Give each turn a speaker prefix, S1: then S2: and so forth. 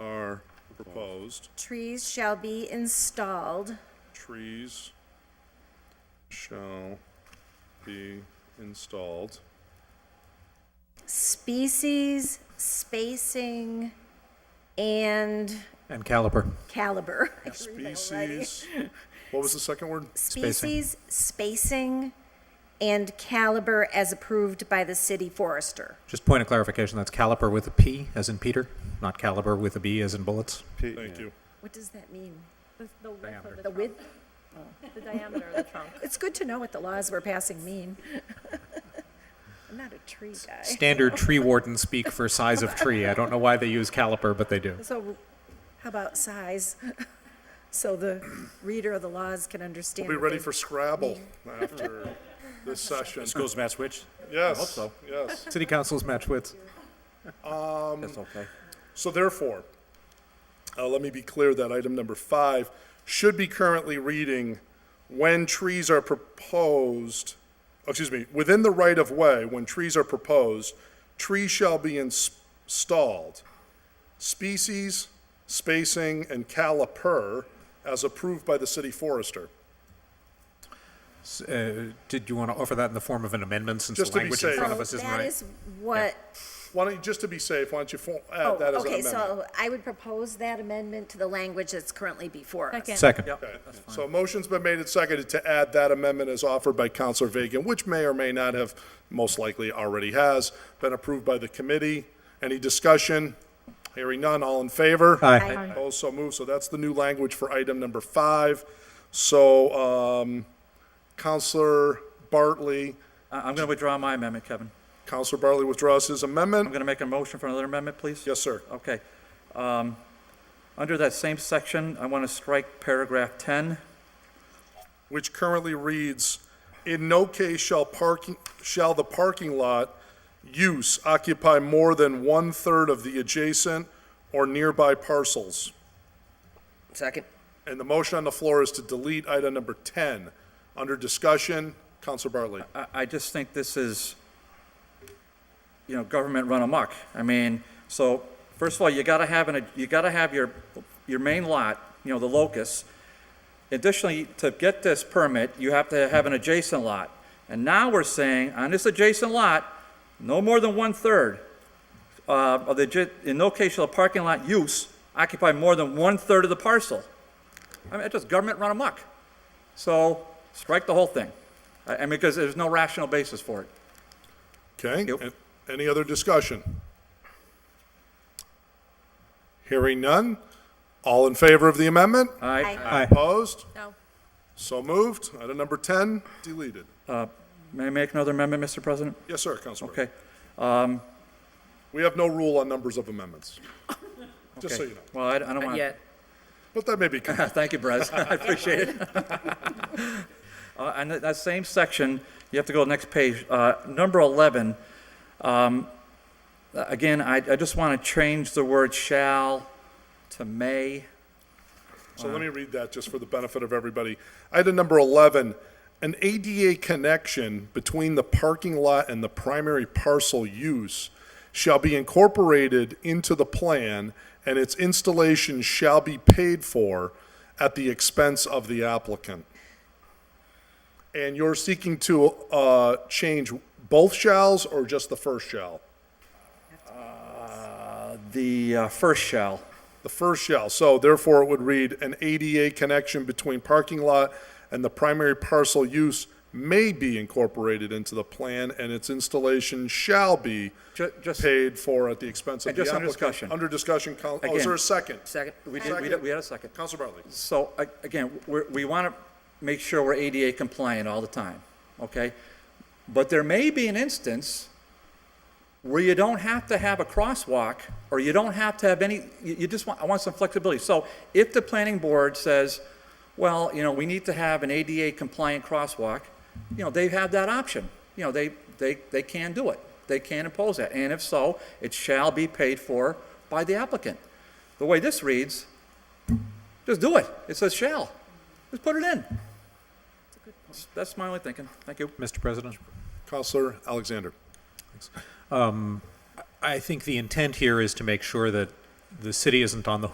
S1: Opposed?
S2: Trees shall be installed
S1: Trees shall be installed.
S2: species, spacing, and
S3: And caliper.
S2: caliber. I can read that already.
S1: Species, what was the second word?
S2: Species, spacing, and caliber as approved by the city forester.
S3: Just point of clarification, that's caliper with a P as in Peter, not caliber with a B as in bullets.
S4: P-
S1: Thank you.
S2: What does that mean?
S5: The the width of
S2: The
S5: the trunk,
S2: width?
S5: the diameter of the trunk.
S2: It's good to know what the laws we're passing mean. I'm not a tree guy.
S3: Standard tree warden speak for size of tree. I don't know why they use caliper, but they do.
S2: So how about size? So the reader of the laws can understand.
S1: We'll be
S2: what
S1: ready
S2: they-
S1: for Scrabble after this session.
S6: Schools match which?
S1: Yes.
S6: hope so.
S1: Yes.
S3: City council's match wits.
S6: That's okay.
S1: So therefore, uh, let me be clear that item number five should be currently reading, when trees are proposed, excuse me, within the right of way, when trees are proposed, trees shall be ins- installed. Species, spacing, and caliper as approved by the city forester.
S3: Uh, Did you want to offer that in the form of an amendment since
S1: Just to
S3: the
S1: be
S3: language in
S1: safe.
S3: front
S2: So
S3: of us isn't
S2: that
S3: right?
S2: is what,
S1: Why don't you, just to be safe, why don't you fo-
S2: oh,
S1: add that as an
S2: okay,
S1: amendment?
S2: so I would propose that amendment to the language that's currently before us.
S5: Second.
S3: Second.
S1: Okay. So a motion's been made and seconded to add that amendment as offered by Counselor Vacan, which may or may not have, most likely already has, been approved by the committee. Any discussion? Hearing none, all in favor?
S3: Aye.
S1: Opposed, so moved. So that's the new language for item number five. So, um, Counselor Bartley,
S6: I- I'm going to withdraw my amendment, Kevin.
S1: Counselor Bartley withdraws his
S6: I'm
S1: amendment.
S6: going to make a motion for another amendment, please.
S1: Yes, sir.
S6: Okay. Um, Under that same section, I want to strike paragraph 10.
S1: which currently reads, "In no case shall parking, shall the parking lot use occupy more than one-third of the adjacent or nearby parcels."
S7: Second.
S1: And the motion on the floor is to delete item number 10. Under discussion, Counselor Bartley.
S6: I, I just think this is, you know, government run amok. I mean, so, first of all, you gotta have an, you gotta have your, your main lot, you know, the locus. Additionally, to get this permit, you have to have an adjacent lot. And now we're saying, on this adjacent lot, no more than one-third uh, of the, adj- in no case shall a parking lot use occupy more than one-third of the parcel. I mean, it's just government run amok. So, strike the whole thing. I I mean, because there's no rational basis for it.
S1: Okay?
S6: Yep.
S1: A- Any other discussion? Hearing none. All in favor of the amendment?
S6: Aye.
S3: Aye.
S1: Opposed?
S5: No.
S1: So moved. Item number 10, deleted.
S6: May I make another amendment, Mr. President?
S1: Yes, sir, Counselor. Bartley.
S6: Uh, Okay. um,
S1: We have no rule on numbers of amendments, just so
S6: Okay.
S1: you know.
S6: Well, I I don't want to.
S7: Yet.
S1: But that may be, con-
S6: Thank you, Brez. I appreciate it. Uh, And that- that same section, you have to go to the next page, uh, number 11. um, uh, Again, I I just want to change the word "shall" to "may."
S1: so let me read that just for the benefit of everybody. Item number 11, an ADA connection between the parking lot and the primary parcel use shall be incorporated into the plan, and its installation shall be paid for at the expense of the applicant. And you're seeking to uh, change both shalls or just the first shall?
S6: The uh, first "shall."
S1: The first shall, so therefore it would read, an ADA connection between parking lot and the primary parcel use may be incorporated into the plan, and its installation shall be
S6: Ju- just-
S1: paid for at the expense of
S6: And
S1: the
S6: just
S1: applicant.
S6: under discussion.
S1: Under discussion, coun- oh, is
S6: Again.
S1: there a second?
S7: Second.
S6: We did- we did- we had a second.
S1: Counselor Bartley,
S6: So, a- again, we're, we want to make sure we're ADA compliant all the time, okay? But there may be an instance where you don't have to have a crosswalk, or you don't have to have any, you, you just want, I want some flexibility. So if the planning board says, well, you know, we need to have an ADA compliant crosswalk, you know, they have that option. You know, they, they, they can do it. They can impose that. And if so, it shall be paid for by the applicant. The way this reads, just do it. It says shall. Just put it in. That's my only thinking. Thank you.
S3: Mr. President?
S1: Counselor Alexander.
S3: I think the intent here is to make sure that the city isn't on the